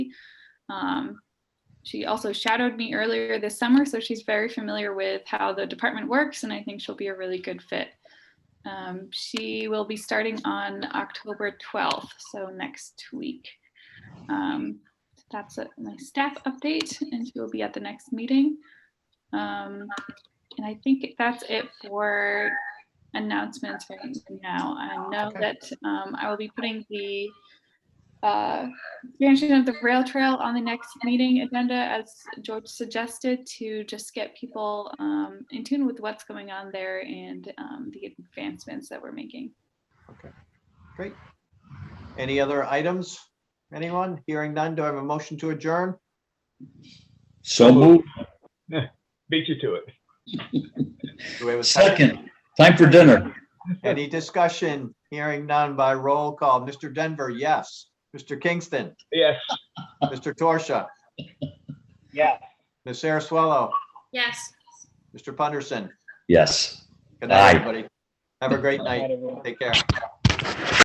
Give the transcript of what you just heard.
Um, she also shadowed me earlier this summer, so she's very familiar with how the department works, and I think she'll be a really good fit. Um, she will be starting on October 12th, so next week. Um, that's a- my staff update, and she will be at the next meeting. Um, and I think that's it for announcements right now. I know Okay. that um, I will be putting the uh, expansion of the rail trail on the next meeting agenda, as George suggested, to just get people um, in tune with what's going on there and um, the advancements that we're making. Great. Any other items? Anyone? Hearing none. Do I have a motion to adjourn? So moved. Beat you to it. Do we have a Second, time for dinner. Any discussion? Hearing none by roll call. Mr. Denver, yes. Mr. Kingston, Yes. Mr. Torsia, Yes. Ms. Saraswello, Yes. Mr. Punderson. Yes. Good Aye. night, everybody. Have a great night. Take care.